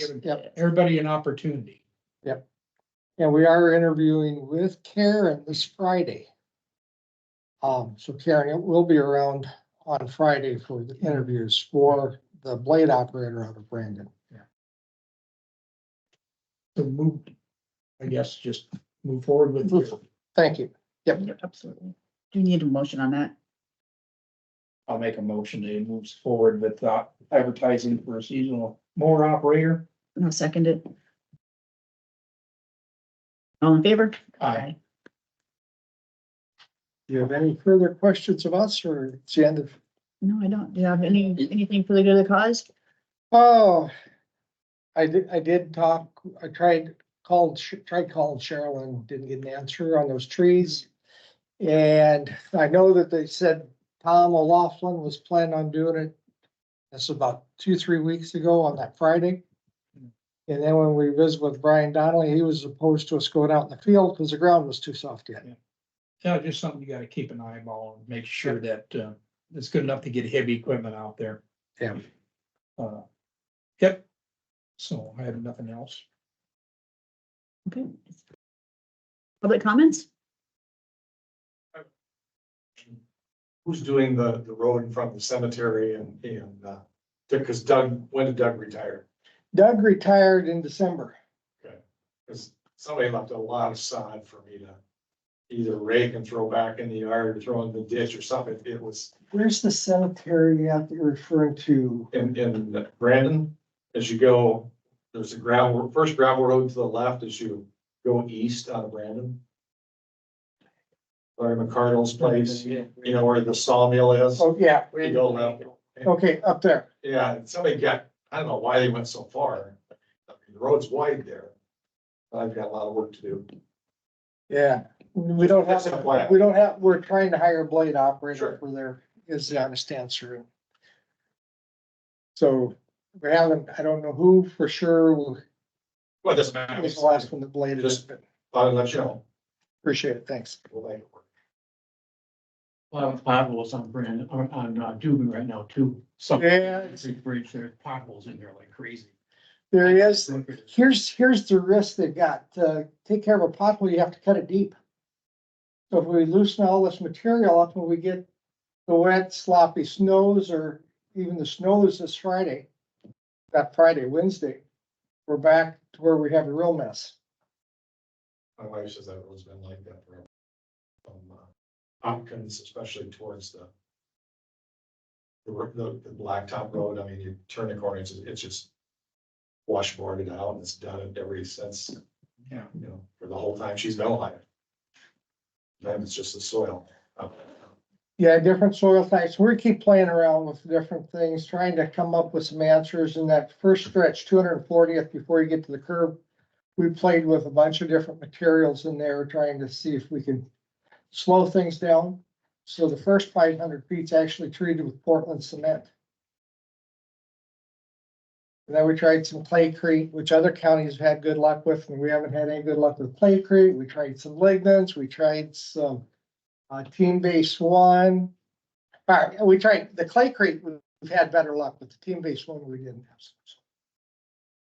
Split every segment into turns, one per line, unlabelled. giving
Yep.
everybody an opportunity.
And we are interviewing with Karen this Friday. Um, so Karen will be around on Friday for the interviews for the blade operator out of Brandon.
So move, I guess, just move forward with
Move
your-
Thank you. Yep.
Yeah, Absolutely. Do you need a motion on that?
I'll make a motion that it moves forward with uh, advertising for a seasonal mower operator.
No, second it. All in favor?
Aye.
Do you have any further questions of us or it's the end of?
No, I don't. Do you have any, anything for the good of the cause?
Oh, I did, I did talk, I tried, called, Sh- tried calling Cheryl and didn't get an answer on those trees. And I know that they said Tom O'Laughlin was planning on doing it. That's about two, three weeks ago on that Friday.
Hmm.
And then when we visited with Brian Donnelly, he was opposed to us going out in the field because the ground was too soft yet.
Yeah, just something you gotta keep an eyeball and make sure that uh, it's good enough to get heavy equipment out there.
Yeah.
Uh, Yep. So I have nothing else.
Okay. Public comments?
who's doing the, the road in front of the cemetery and, and, uh, because Doug, when did Doug retire?
Doug retired in December.
Because somebody left a lot of sod for me to either rake and throw back in the yard, or throw in the ditch or something. It was,
Where's the cemetery at that you're referring to?
in, in Brandon, as you go, there's a gravel, first gravel road to the left as you go east out of Brandon. Larry McCardle's place, you know, where the sawmill is.
Oh, yeah.
You go left.
Okay, up there.
Yeah, and somebody got, I don't know why they went so far. I mean, The road's wide there. I've got a lot of work to do.
Yeah, we don't
That's the plan.
have, we don't have, we're trying to hire a blade
Sure.
operator for there is the honest answer. So we haven't, I don't know who for sure was
Well, it doesn't matter.
the last one that bladed us, but
I'll let you know.
appreciate it, thanks.
We'll make it work.
Well, potholes on Brandon, on, on uh, Dubin right now too. Some-
Yeah.
Every bridge, there's potholes in there like crazy.
There is,
Look at it.
here's, here's the risk they've got, uh, take care of a pothole, you have to cut it deep. So if we loosen all this material up when we get the wet sloppy snows or even the snows this Friday, not Friday, Wednesday, we're back to where we have a real mess.
My wife says that road's been like that for from uh, Hopkins, especially towards the the, r- the, the blacktop road. I mean, you turn the corner, it's, it's just washboarded out and it's done it every since,
Yeah.
you know, for the whole time she's been alive. Then it's just the soil. Uh, up there.
Yeah, different soil types. We keep playing around with different things, trying to come up with some answers in that first stretch, two hundred and fortieth, before you get to the curb. We played with a bunch of different materials in there, trying to see if we can slow things down. So the first five hundred feet's actually treated with Portland cement. And then we tried some claycrete, which other counties have had good luck with, and we haven't had any good luck with claycrete. We tried some lignans, we tried some uh, team base one. All right, we tried the clay crate, we- we've had better luck, but the team base one, we didn't have. so- so.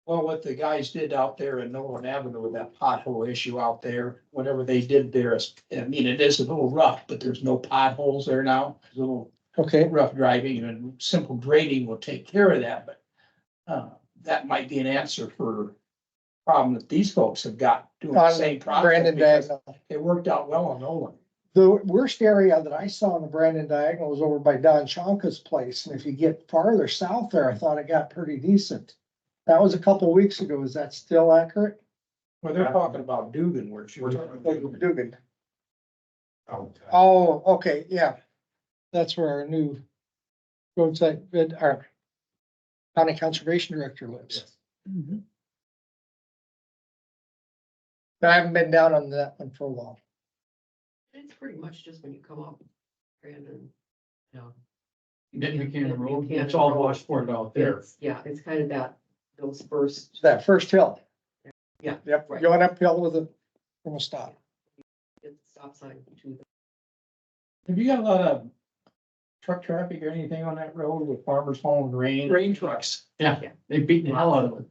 Well, what the guys did out there in Nolan Avenue with that pothole issue out there, whatever they did there is, I mean, it is a little rough, but there's no potholes there now. It's a little
Okay,
rough driving and simple grading will take care of that, but uh, that might be an answer for problem that these folks have got doing the
On
same project
Brandon
because
Diagonal.
it worked out well on Nolan.
The worst area that I saw on the Brandon Diagonal was over by Don Shanka's place, and if you get farther south there, I thought it got pretty decent. That was a couple of weeks ago. Is that still accurate?
Well, they're talking about Dugan, where she
We're
was.
talking about Dugan.
Dugan.
out.
Oh, okay, yeah. That's where our new roadside, vid- our county conservation director lives.
Yes.
Mhm.
I haven't been down on that one for a while.
It's pretty much just when you come up, Brandon. you know,
Then Buchanan Road,
Buchanan
it's all
Road.
washboard out there.
it's- Yeah, it's kind of that, those first,
that first hill.
Yeah.
Yep,
Right.
going uphill with a, from a stop.
it's stop sign to the,
Have you got a lot of truck traffic or anything on that road with farmers hauling grain?
Grain trucks. Yeah, they beat the hell out of it.